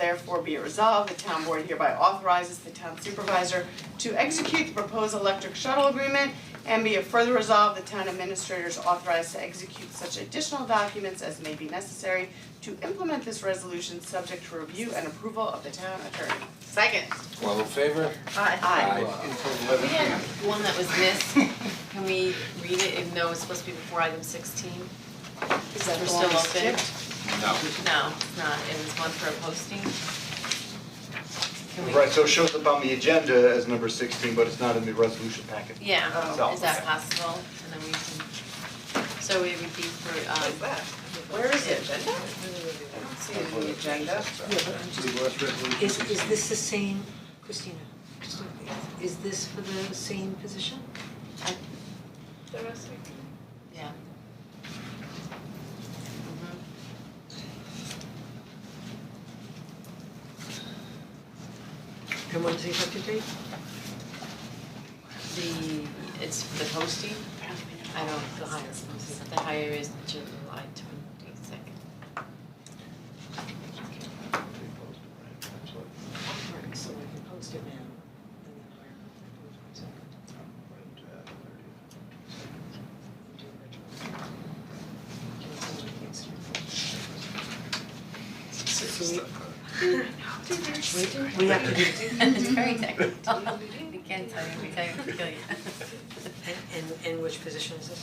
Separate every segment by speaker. Speaker 1: Therefore be it resolved, the town board hereby authorizes the town supervisor to execute the proposed electric shuttle agreement. And be it further resolved, the town administrator is authorized to execute such additional documents as may be necessary to implement this resolution, subject to review and approval of the town attorney.
Speaker 2: Second.
Speaker 3: All in favor?
Speaker 1: Aye.
Speaker 3: Until
Speaker 2: We had
Speaker 3: eleven p.m.
Speaker 2: one Uh, that was missed, can we read it even though it's supposed to be before item sixteen?
Speaker 1: Is that
Speaker 2: We're
Speaker 1: the one
Speaker 2: still
Speaker 1: we
Speaker 2: open.
Speaker 1: skipped?
Speaker 3: No.
Speaker 2: No, it's not, it was one for posting. Can we,
Speaker 4: Right, so it shows up on the agenda as number sixteen, but it's not in the resolution packet.
Speaker 2: yeah,
Speaker 4: Oh,
Speaker 2: is that
Speaker 4: okay.
Speaker 2: possible? And then we can, so it would be for, um.
Speaker 1: Where is it? Agenda? I don't see it in the agenda.
Speaker 5: Yeah, but I'm just, is, is this the same, Christina, Christina, is this for the same position?
Speaker 2: Yeah. Mm-hmm.
Speaker 5: And when's the effective date?
Speaker 2: The, it's for the posting? I don't, the hire, the hire is July twenty-second.
Speaker 5: Right, so I can post it now, and then hire her for the 22nd. Do it retroactive. Can I send you the extra? We, we have to do,
Speaker 2: It's very technical. We can't tell you, we can't kill you.
Speaker 5: and, and, and which position is this?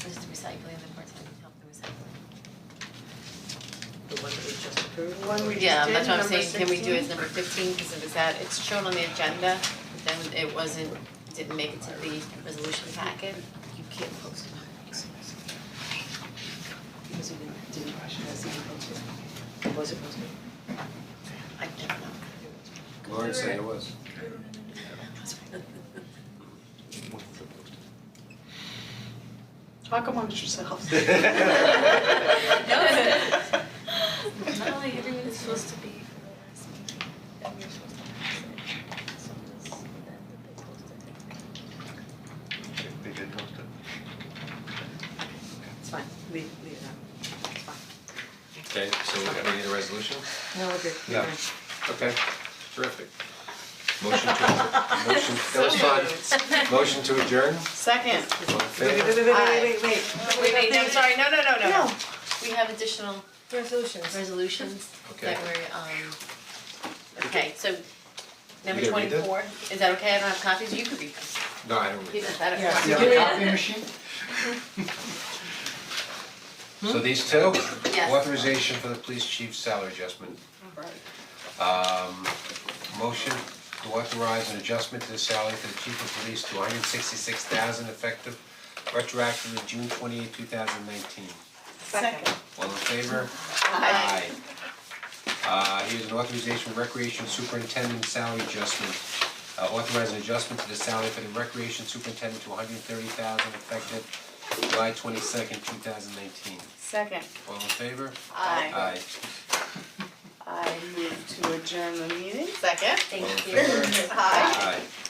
Speaker 2: Just recycling, the part-time help the recycling.
Speaker 5: The one that we just approved?
Speaker 1: The one we just did,
Speaker 2: Yeah, that's what I'm
Speaker 1: number
Speaker 2: saying, can we do it
Speaker 1: 16?
Speaker 2: as number fifteen, because it was that, it's shown on the agenda, but then it wasn't, didn't make it to the resolution packet. You can't post it.
Speaker 5: Because we didn't, didn't rush it, as it posted. Was it posted?
Speaker 2: I don't know.
Speaker 3: Lauren said it was.
Speaker 1: Talk amongst yourselves.
Speaker 6: Not like everyone is supposed to be for the last meeting, that we're supposed to have it. So this, that, that they posted it.
Speaker 4: They did post it.
Speaker 5: It's fine, leave, leave it out, it's fine.
Speaker 3: Okay, so we're gonna need a resolution?
Speaker 5: No, we're good,
Speaker 3: No.
Speaker 5: Fine.
Speaker 3: Okay, terrific. Motion to, motion, that was fun. Motion to adjourn,
Speaker 1: Second.
Speaker 3: all in
Speaker 5: Wait,
Speaker 3: favor?
Speaker 5: wait, wait, wait, wait, wait,
Speaker 2: Wait, wait, no, sorry, no, no, no, no.
Speaker 5: No.
Speaker 2: We have additional
Speaker 5: resolutions.
Speaker 2: resolutions
Speaker 3: Okay.
Speaker 2: that were, um, okay, so number
Speaker 3: You gonna read that?
Speaker 2: twenty-four, is that okay? I don't have copies, you could read them.
Speaker 3: No, I don't read
Speaker 2: Even
Speaker 3: that.
Speaker 2: better.
Speaker 5: Yeah.
Speaker 2: You
Speaker 5: Yeah.
Speaker 2: can read it?
Speaker 3: So these two,
Speaker 2: Yes.
Speaker 3: authorization for the police chief's salary adjustment. Um, motion to authorize an adjustment to the salary for the chief of police to hundred sixty-six thousand effective retroactive to June twenty-eighth, two thousand nineteen.
Speaker 1: Second.
Speaker 3: All in favor? Aye. Uh, here's an authorization for recreation superintendent salary adjustment. Uh, authorize an adjustment to the salary for the recreation superintendent to hundred and thirty thousand effective July twenty-second, two thousand nineteen.
Speaker 1: Second.
Speaker 3: All in favor?
Speaker 1: Aye.
Speaker 3: Aye.
Speaker 1: I move to adjourn the meeting. Second.
Speaker 3: All in
Speaker 2: Thank you.
Speaker 3: favor?
Speaker 1: Aye.
Speaker 3: Aye.